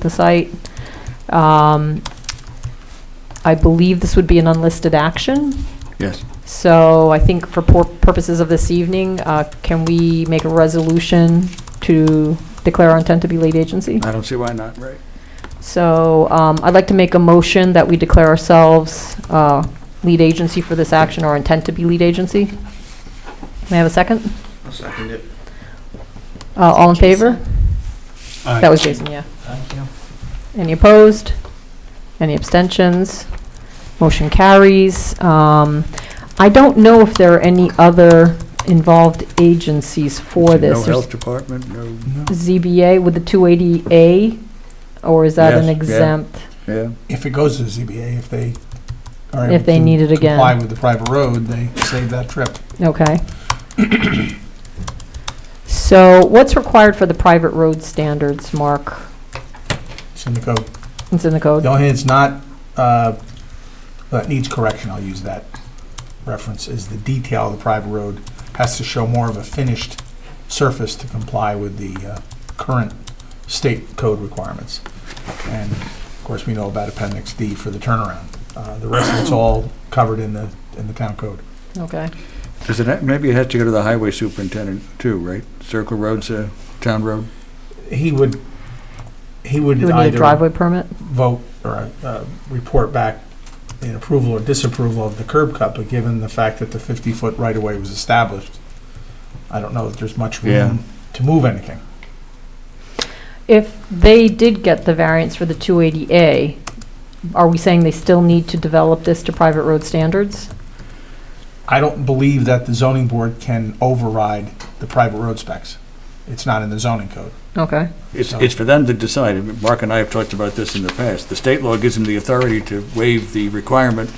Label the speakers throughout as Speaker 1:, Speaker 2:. Speaker 1: the site. Um, I believe this would be an unlisted action,
Speaker 2: Yes.
Speaker 1: so I think for pur- purposes of this evening, uh, can we make a resolution to declare our intent to be lead agency?
Speaker 2: I don't see why not, right?
Speaker 1: So um, I'd like to make a motion that we declare ourselves uh, lead agency for this action or intent to be lead agency. May I have a second?
Speaker 3: I'll second it.
Speaker 1: Uh, All in favor? That was Jason, yeah. Any opposed? Any abstentions? Motion carries. Um, I don't know if there are any other involved agencies for
Speaker 2: No
Speaker 1: this. There's
Speaker 2: health department, no,
Speaker 1: ZBA with the 280A, or is that
Speaker 2: Yes,
Speaker 1: an
Speaker 2: yeah.
Speaker 1: exempt?
Speaker 2: yeah.
Speaker 4: If it goes to the ZBA, if they are
Speaker 1: If
Speaker 4: able
Speaker 1: they
Speaker 4: to
Speaker 1: need it again.
Speaker 4: Comply with the private road, they save that trip.
Speaker 1: Okay. So what's required for the private road standards, Mark?
Speaker 4: It's in the code.
Speaker 1: It's in the
Speaker 4: The
Speaker 1: code?
Speaker 4: only thing that's not, uh, that needs correction, I'll use that reference, is the detail of the private road has to show more of a finished surface to comply with the uh, current state code requirements. And of course, we know about Appendix D for the turnaround. Uh, The rest of it's all covered in the, in the town code.
Speaker 1: Okay.
Speaker 2: Does it, ha- maybe it has to go to the highway superintendent too, right? Circle Road's a town road?
Speaker 4: He would, he would
Speaker 1: You would need a
Speaker 4: either
Speaker 1: driveway permit?
Speaker 4: vote or uh, report back in approval or disapproval of the curb cut, but given the fact that the 50-foot right-of-way was established, I don't know that there's much
Speaker 2: Yeah.
Speaker 4: room to move anything.
Speaker 1: If they did get the variance for the 280A, are we saying they still need to develop this to private road standards?
Speaker 4: I don't believe that the zoning board can override the private road specs. It's not in the zoning code.
Speaker 1: Okay.
Speaker 2: It's, it's for them to decide. I mean, Mark and I have talked about this in the past. The state law gives them the authority to waive the requirement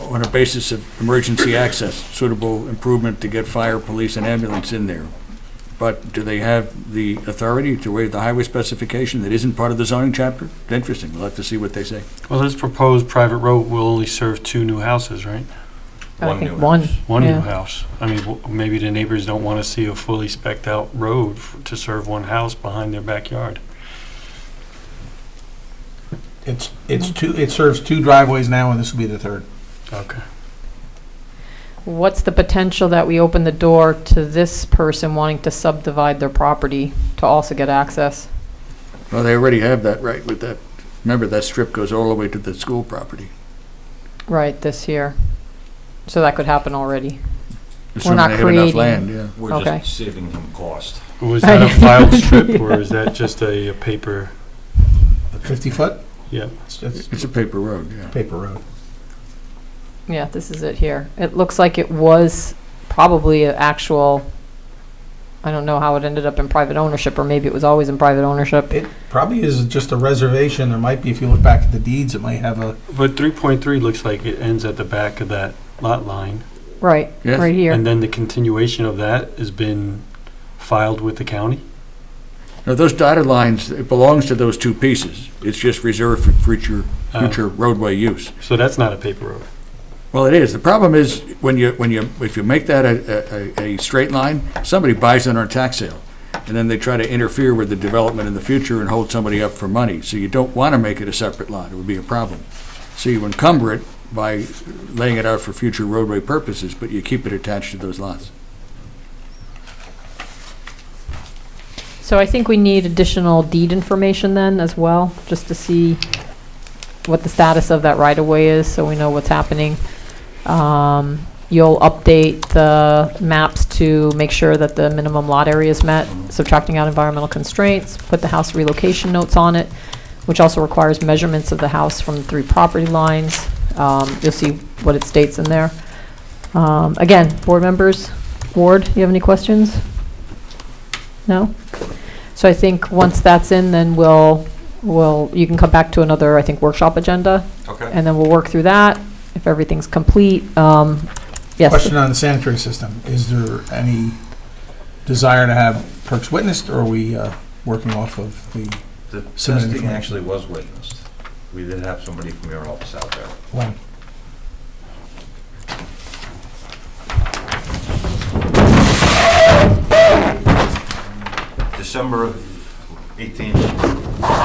Speaker 2: on a basis of emergency access, suitable improvement to get fire, police, and ambulance in there. But do they have the authority to waive the highway specification that isn't part of the zoning chapter? Interesting. We'll have to see what they say.
Speaker 5: Well, this proposed private road will only serve two new houses, right?
Speaker 1: I think one.
Speaker 5: One new
Speaker 1: Yeah.
Speaker 5: house. I mean, w- maybe the neighbors don't want to see a fully specked out road f- to serve one house behind their backyard.
Speaker 4: It's, it's two, it serves two driveways now, and this will be the third.
Speaker 5: Okay.
Speaker 1: What's the potential that we open the door to this person wanting to subdivide their property to also get access?
Speaker 2: Well, they already have that right with that. Remember, that strip goes all the way to the school property.
Speaker 1: Right, this here. So that could happen already.
Speaker 2: assuming
Speaker 1: not
Speaker 2: they have enough
Speaker 1: creating-
Speaker 2: land, yeah.
Speaker 3: We're
Speaker 1: Okay.
Speaker 3: just saving him cost.
Speaker 5: Was that a filed strip or is that just a a paper?
Speaker 4: The 50-foot,
Speaker 5: Yeah.
Speaker 4: it's, it's
Speaker 2: It's a paper road, yeah.
Speaker 4: paper road.
Speaker 1: Yeah, this is it here. It looks like it was probably an actual, I don't know how it ended up in private ownership, or maybe it was always in private ownership.
Speaker 4: It probably is just a reservation. There might be, if you look back at the deeds, it might have a
Speaker 5: But 3.3 looks like it ends at the back of that lot line.
Speaker 1: Right,
Speaker 2: Yes.
Speaker 1: right here.
Speaker 5: And then the continuation of that has been filed with the county?
Speaker 2: Now, those dotted lines, it belongs to those two pieces. It's just reserved for future,
Speaker 5: Oh.
Speaker 2: future roadway use.
Speaker 5: So that's not a paper road.
Speaker 2: Well, it is. The problem is, when you, when you, if you make that a, a, a straight line, somebody buys it on a tax sale. And then they try to interfere with the development in the future and hold somebody up for money. So you don't want to make it a separate lot. It would be a problem. So you encumber it by laying it out for future roadway purposes, but you keep it attached to those lots.
Speaker 1: So I think we need additional deed information then as well, just to see what the status of that right-of-way is, so we know what's happening. Um, You'll update the maps to make sure that the minimum lot area is met, subtracting out environmental constraints, put the house relocation notes on it, which also requires measurements of the house from the three property lines. Um, You'll see what it states in there. Um, Again, board members, Ward, you have any questions? No? So I think once that's in, then we'll, we'll, you can come back to another, I think, workshop agenda,
Speaker 3: Okay.
Speaker 1: and then we'll work through that, if everything's complete. um, Yes,
Speaker 4: Question on the sanitary system. Is there any desire to have perks witnessed, or are we uh, working off of the
Speaker 3: The
Speaker 4: Submitted
Speaker 3: testing
Speaker 4: information.
Speaker 3: actually was witnessed. We did have somebody from your office out there.
Speaker 4: land?
Speaker 3: December of 18th,